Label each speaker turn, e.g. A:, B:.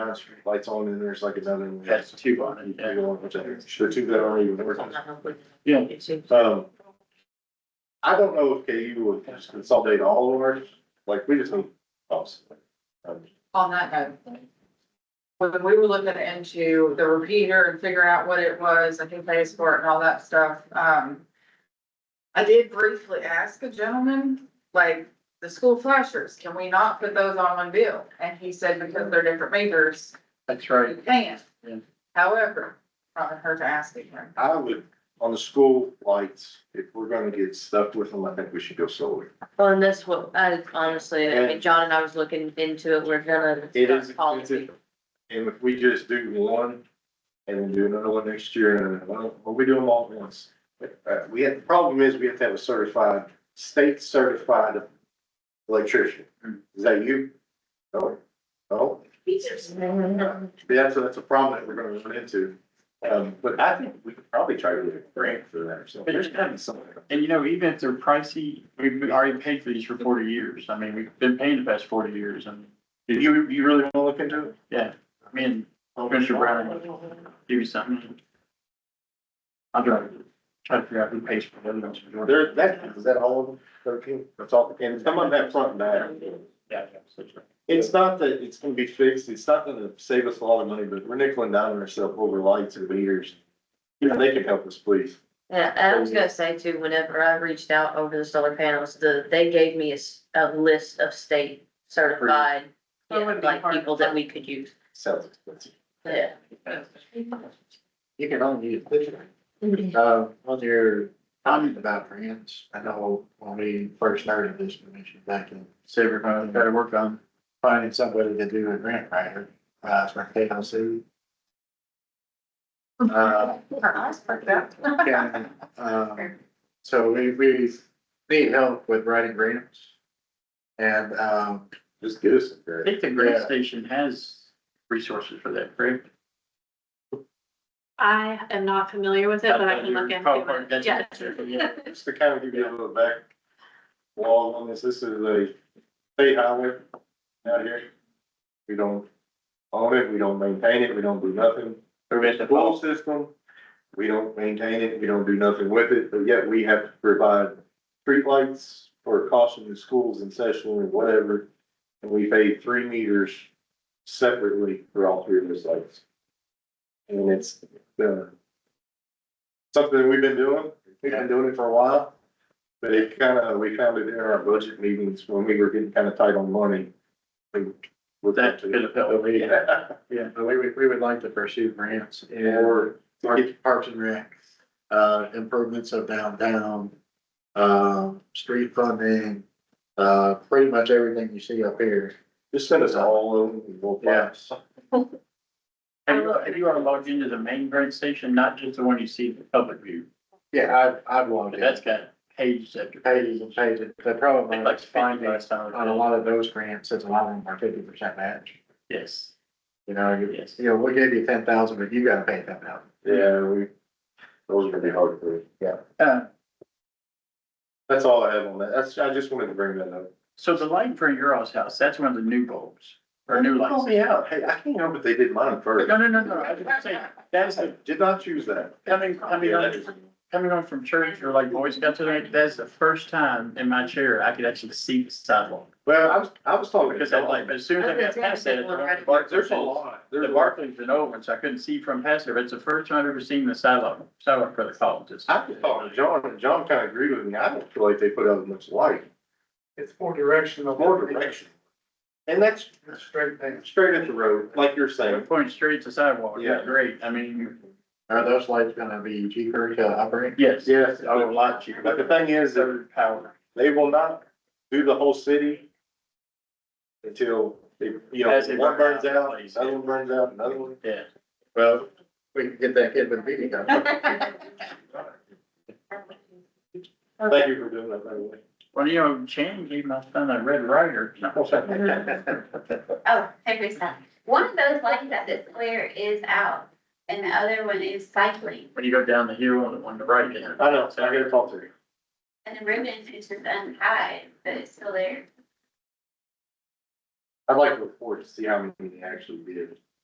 A: lights on and there's like another. one.
B: That's two on it, yeah.
A: The one which I- the two that aren't even working.
B: Yeah.
A: Um, I don't know if KU would just consolidate all of ours, like we just need us. Um,
C: On that note. When we were looking into the repeater and figuring out what it was and who pays for it and all that stuff, um. I did briefly ask a gentleman, like, the school flashers, can we not put those on one bill? And he said because they're different meters,
B: That's right.
C: we can't.
B: Yeah.
C: However, I haven't heard to ask again.
A: I would, on the school lights, if we're gonna get stuck with them, I think we should go solar.
D: Well, and that's what, I honestly, I mean, John and I was looking into it, we're gonna.
A: It is
D: Policy.
A: expensive. And if we just do one and then do another one next year, and well, well, we do them all at once. Uh, we have, the problem is we have to have a certified, state certified electrician. Is that you? No? No? Yeah, so that's a problem that we're gonna run into. Um, but I think we could probably try to get a grant for that or something. There's gotta be something.
B: And you know, even if they're pricey, we've already paid for these for forty years. I mean, we've been paying the past forty years and,
A: You, you really wanna look into it?
B: yeah, I mean, Commissioner Brown would do something. I'll try, to- try to figure out who pays for the other ones.
A: There, that, is that all of them? Thirteen? That's all, and some of that front and back.
B: Yeah, yeah, so it's-
A: It's not that it's gonna be fixed, it's not gonna save us a lot of money, but we're nickel and diming ourselves over lights and meters. You know, they can help us, please.
D: Yeah, and I was gonna say too, whenever I reached out over the solar panels, the, they gave me a, s- a list of state certified.
C: That
D: yeah,
C: wouldn't be
D: Like
C: hard to
D: people that
C: find.
D: we could use,
A: Sounds expensive.
D: yeah.
E: You can only use this, uh, on your comment about grants, I know when we first started this commission back in,
B: Save your money, gotta work on.
E: finding somebody to do a grant writer, uh, for KLC. Uh,
C: Her eyes perked up.
E: yeah, um, so we, we need help with writing grants. And, um,
A: Just give us a
B: I
A: grant.
B: think the grant
E: Yeah.
B: station has resources for that, correct?
F: I am not familiar with it, but I can look
B: Probably,
F: into
B: that's-
F: it. Yeah.
B: yeah.
A: Just to kind of give you a little back wall on this, this is a state highway out here. We don't own it, we don't maintain it, we don't do nothing.
B: Or we have to
A: Pool
B: follow-
A: system, we don't maintain it, we don't do nothing with it, but yet we have to provide streetlights for caution in schools and session and whatever. And we pay three meters separately for all three of those lights. And it's, uh, something we've been doing, we've been doing it for a while. But it kind of, we found it in our budget meetings when we were getting kind of tight on money. We looked
B: That
A: into
B: could
A: it.
B: have helped.
E: but we, would- we would like to pursue grants and
A: Or
E: Parks, Parks and Rec, uh, improvements of downtown, uh,
B: um,
E: street funding, uh, pretty much everything you see up here.
A: Just send us all of them, and we'll
E: Yeah.
A: find some.
B: Have you, have you are logged into the main grant station, not just the one you see in the public view?
E: Yeah, I've, I've logged
B: But
E: in.
B: that's got pages after
E: Pages and
B: pages. I
E: pages. The problem
B: think like
E: is
B: fifty
E: finding
B: last time.
E: on a lot of those grants, it's a lot of them are fifty percent match.
B: Yes,
E: You know, you,
B: yes.
E: you know, we'll give you ten thousand, but you gotta pay ten thousand.
A: Yeah, we, those are gonna be hard to, yeah.
B: Uh,
A: That's all I have on that. That's, I just wanted to bring that up.
B: so the light in front of your all's house, that's one of the new bulbs, or new lights.
A: Call me out. Hey, I can't help it. They did mine first.
B: No, no, no, no, I was gonna say, that's the,
A: Did not choose that.
B: coming, coming on, coming on from church or like Boy Scouts tonight, that's the first time in my chair I could actually see the sidewalk.
A: Well, I was, I was talking.
B: Because that light, but as soon as I got past that. it's-
A: Bar- There's a lot.
B: The
A: There's a lot.
B: Barclays and Owens, I couldn't see from past there, but it's the first time I've ever seen the sidewalk, sidewalk for the colleges.
A: I was talking to John, and John kind of agreed with me. I don't feel like they put out much light.
E: It's more directional.
A: More direction. And that's
E: Straight things.
A: straight at the road, like you're saying.
B: Pointing straight to sidewalk,
A: Yeah.
B: yeah, great, I mean,
E: Are those lights gonna be cheaper to operate?
B: yes.
A: Yes.
B: I would like you.
A: But the thing is, that
B: Third power.
A: they will not do the whole city until they, you know,
B: As they
A: one
B: burn
A: burns
B: out,
A: out,
B: please.
A: another one burns out, another one.
B: Yeah.
E: Well, we can get that kid with a meeting up.
A: Thank you for doing that, by the way.
B: Well, you know, Chan gave my son a red rider.
G: Oh, hey, Krista, one of those lights at the square is out and the other one is cycling.
B: When you go down the hill on the, on the right hand.
A: I know, so I gotta talk to you.
G: And the ribbon is just untied, but it's still there.
A: I'd like to report to see how many they actually did.